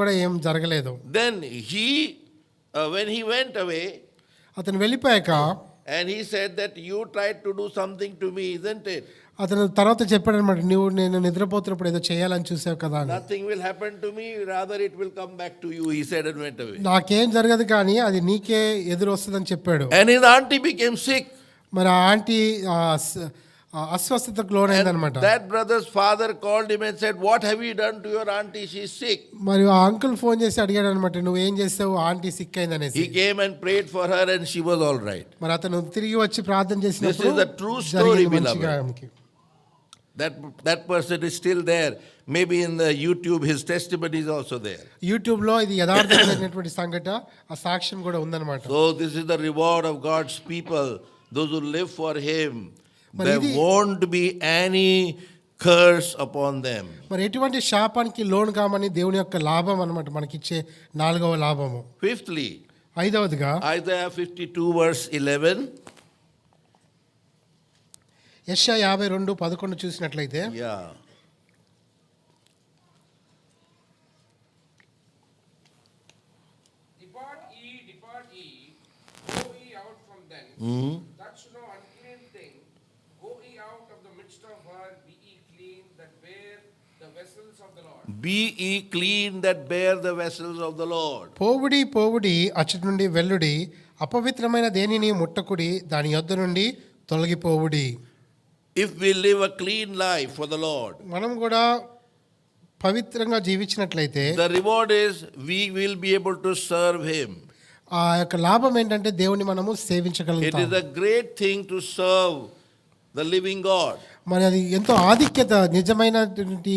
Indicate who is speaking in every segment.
Speaker 1: కూడా ఏం జరగలేదు
Speaker 2: Then he, uh, when he went away,
Speaker 1: అతను వెళ్ళిపోయాక
Speaker 2: and he said that you tried to do something to me, isn't it?
Speaker 1: అతను తర్వాత చెప్పాడనమాట నువ్వు నేను నిద్రపోతున్నప్పుడు ఏదో చేయాలని చూసావు కదా అని
Speaker 2: Nothing will happen to me, rather it will come back to you, he said and went away.
Speaker 1: నాకేం జరగదు కానీ అది నీకే ఎదురు వస్తుందని చెప్పాడు
Speaker 2: And his auntie became sick.
Speaker 1: మరి ఆ ఆంటీ ఆ అస్- ఆ అస్వస్థతకు లోనైందనమాట
Speaker 2: That brother's father called him and said, What have you done to your auntie? She's sick.
Speaker 1: మరి ఆ అంకుల్ ఫోన్ చేసి అడిగాడు అనమాట నువ్వేం చేసావు ఆంటీ సిక్ అయిందనేసి
Speaker 2: He came and prayed for her, and she was all right.
Speaker 1: మరి అతను తిరిగి వచ్చి ప్రార్థన చేసినప్పుడు
Speaker 2: This is the true story,
Speaker 1: జరిగింది
Speaker 2: beloved.
Speaker 1: మంచిగా ఆమెకి.
Speaker 2: That, that person is still there. Maybe in the YouTube, his testimony is also there.
Speaker 1: యూట్యూబ్లో ఇది యథార్థమైనటువంటి సంఘట ఆ సాక్ష్యం కూడా ఉందన్నమాట
Speaker 2: So, this is the reward of God's people, those who live for Him.
Speaker 1: But
Speaker 2: There
Speaker 1: ఇది-
Speaker 2: won't be any curse upon them.
Speaker 1: మరి ఎటువంటి శాపానికి లోన్ కామని దేవుని యొక్క లాభం అనమాట మనకిచ్చే నాలుగవ లాభము
Speaker 2: Fifthly,
Speaker 1: ఐదవదిగా
Speaker 2: Isaiah 52, verse 11.
Speaker 1: యశ యాభై రెండు పదకొండు చూసినట్లయితే
Speaker 2: Yeah.
Speaker 3: Depart ye, depart ye, go ye out from thence. Touch no unclean thing. Go ye out of the midst of her, be ye clean, that bear the vessels of the Lord.
Speaker 2: Be ye clean that bear the vessels of the Lord.
Speaker 1: పోవుడి పోవుడి అచ్చటి నుండి వెల్లుడి అపవిత్రమైన దేనిని ముట్టకుడి దాని యొద్ద నుండి తొలగిపోవుడి
Speaker 2: If we live a clean life for the Lord,
Speaker 1: మనం కూడా పవిత్రంగా జీవించినట్లయితే
Speaker 2: the reward is we will be able to serve Him.
Speaker 1: ఆ యొక్క లాభం ఏంటంటే దేవుని మనము
Speaker 2: It
Speaker 1: సేవించగలుగుతాం
Speaker 2: is a great thing to serve the living God,
Speaker 1: మరి అది ఎంతో ఆధిక్యత నిజమైనటువంటి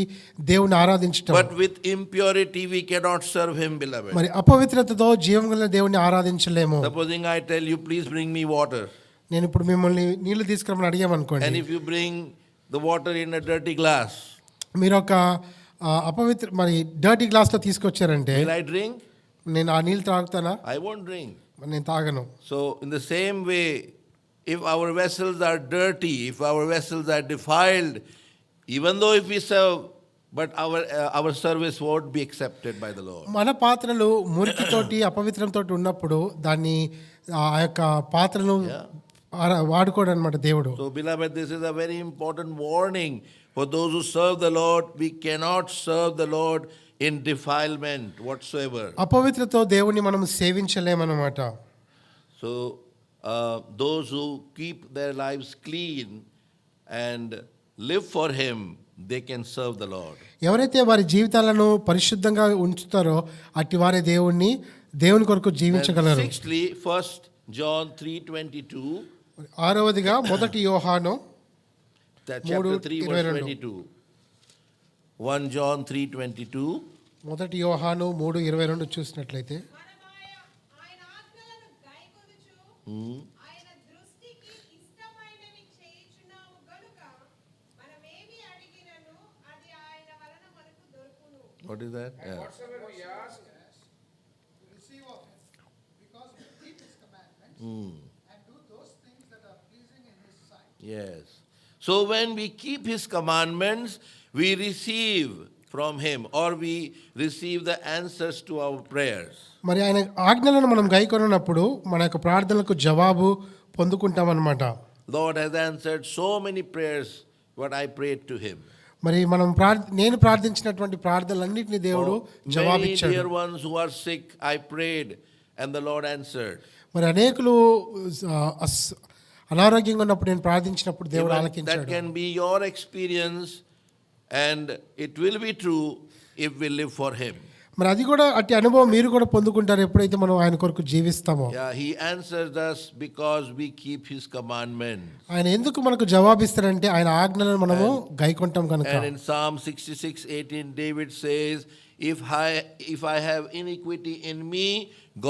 Speaker 1: దేవుని ఆరాధించటం
Speaker 2: but with impurity we cannot serve Him, beloved.
Speaker 1: మరి అపవిత్రతతో జీవం గల దేవుని ఆరాధించలేము
Speaker 2: Supposing I tell you, please bring me water,
Speaker 1: నేను ఇప్పుడు మిమ్మల్ని నీళ్లు తీసుకురమ్మని
Speaker 2: and
Speaker 1: అడిగామనుకోండి
Speaker 2: if you bring the water in a dirty glass,
Speaker 1: మీరు ఒక ఆ, అపవిత్ర మరి డర్టీ గ్లాస్లో తీసుకొచ్చారంటే
Speaker 2: will I drink?
Speaker 1: నేను ఆ నీళ్ళు త్రాగుతానా
Speaker 2: I won't drink.
Speaker 1: మరి నేను తాగను
Speaker 2: So, in the same way, if our vessels are dirty, if our vessels are defiled, even though if we serve, but our uh, our service won't be accepted by the Lord.
Speaker 1: మన పాత్రలు మురికితోటి అపవిత్రంతో ఉన్నప్పుడు దాన్ని ఆ యొక్క పాత్రను ఆరా- వాడుకోడు అనమాట దేవుడు
Speaker 2: So, beloved, this is a very important warning for those who serve the Lord. We cannot serve the Lord in defilement whatsoever.
Speaker 1: అపవిత్రతో దేవుని మనం సేవించలేమన్నమాట
Speaker 2: So, uh, those who keep their lives clean and live for Him, they can serve the Lord.
Speaker 1: ఎవరైతే వారి జీవితాలను పరిశుద్ధంగా ఉంచుతారో అట్టి వారి దేవుణ్ణి దేవుని కొరకు
Speaker 2: And
Speaker 1: జీవించగలరు
Speaker 2: sixthly, First John three twenty two,
Speaker 1: ఆరవదిగా మొదటి యోహాను
Speaker 2: chapter
Speaker 1: Modu
Speaker 2: three
Speaker 1: irvai
Speaker 2: verse
Speaker 1: rendu.
Speaker 2: twenty two. One John three twenty two.
Speaker 1: మొదటి యోహాను మూడు ఇరవై రెండు చూసినట్లయితే
Speaker 4: మనమాయ ఆయన ఆజ్ఞలను గైకొనుచు ఆయన దృష్టికి ఇష్టమైనవి చేయుచున్నాము గనుక మనమేమి అడిగినను అది ఆయన వలన మనకు దొరుకును
Speaker 2: What is that? Yeah.
Speaker 3: Whatsoever we ask,
Speaker 5: receive of him, because we keep his commandments
Speaker 2: Hmm.
Speaker 5: and do those things that are pleasing in his sight.
Speaker 2: Yes. So when we keep his commandments, we receive from him or we receive the answers to our prayers.
Speaker 1: మరి ఆయన ఆజ్ఞలను మనం గైకొన్నప్పుడు మన యొక్క ప్రార్థనలకు జవాబు పొందుకుంటామన్నమాట
Speaker 2: Lord has answered so many prayers what I prayed to him.
Speaker 1: మరి మనం ప్రార్ నేను ప్రార్థించినటువంటి ప్రార్థనలన్నింటినీ దేవుడు
Speaker 2: Oh, Many
Speaker 1: జవాబిచ్చాడు
Speaker 2: dear ones who are sick, I prayed and the Lord answered.
Speaker 1: మరి అనేకులు ఆ, అస్- అనారోగ్యంగా ఉన్నప్పుడు నేను ప్రార్థించినప్పుడు దేవుడు
Speaker 2: Even that
Speaker 1: ఆలకించాడు
Speaker 2: can be your experience, and it will be true if we live for Him.
Speaker 1: మరి అది కూడా అట్టి అనుభవం మీరు కూడా పొందుకుంటారు ఎప్పుడైతే మనం ఆయన కొరకు జీవిస్తామో
Speaker 2: Yeah, He answers us because we keep His commandments.
Speaker 1: ఆయన ఎందుకు మనకు జవాబిస్తారంటే ఆయన ఆజ్ఞలను మనము గైకొంటాం కనుక
Speaker 2: And in Psalm 66 18, David says, if I, if I have iniquity in me,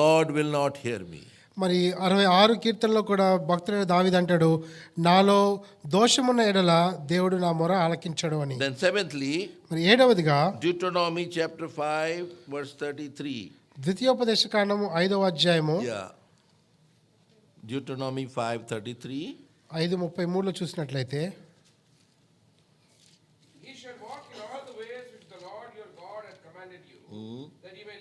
Speaker 2: God will not hear me.
Speaker 1: మరి అరవై ఆరు కీర్తనలో కూడా భక్తుడైన దావిది అంటాడు నాలో దోషమున్న ఎడల దేవుడు నా మొర ఆలకించడు అని
Speaker 2: Then, seventhly,
Speaker 1: మరి ఏడవదిగా
Speaker 2: Deuteronomy chapter 5, verse 33.
Speaker 1: ద్వితీయోపదేశ కాండము ఐదవ అధ్యాయము
Speaker 2: Yeah. Deuteronomy 5 33.
Speaker 1: ఐదు ముప్పై మూడులో చూసినట్లయితే
Speaker 2: Hmm.
Speaker 3: ye shall walk in all the ways which the Lord your God hath commanded you,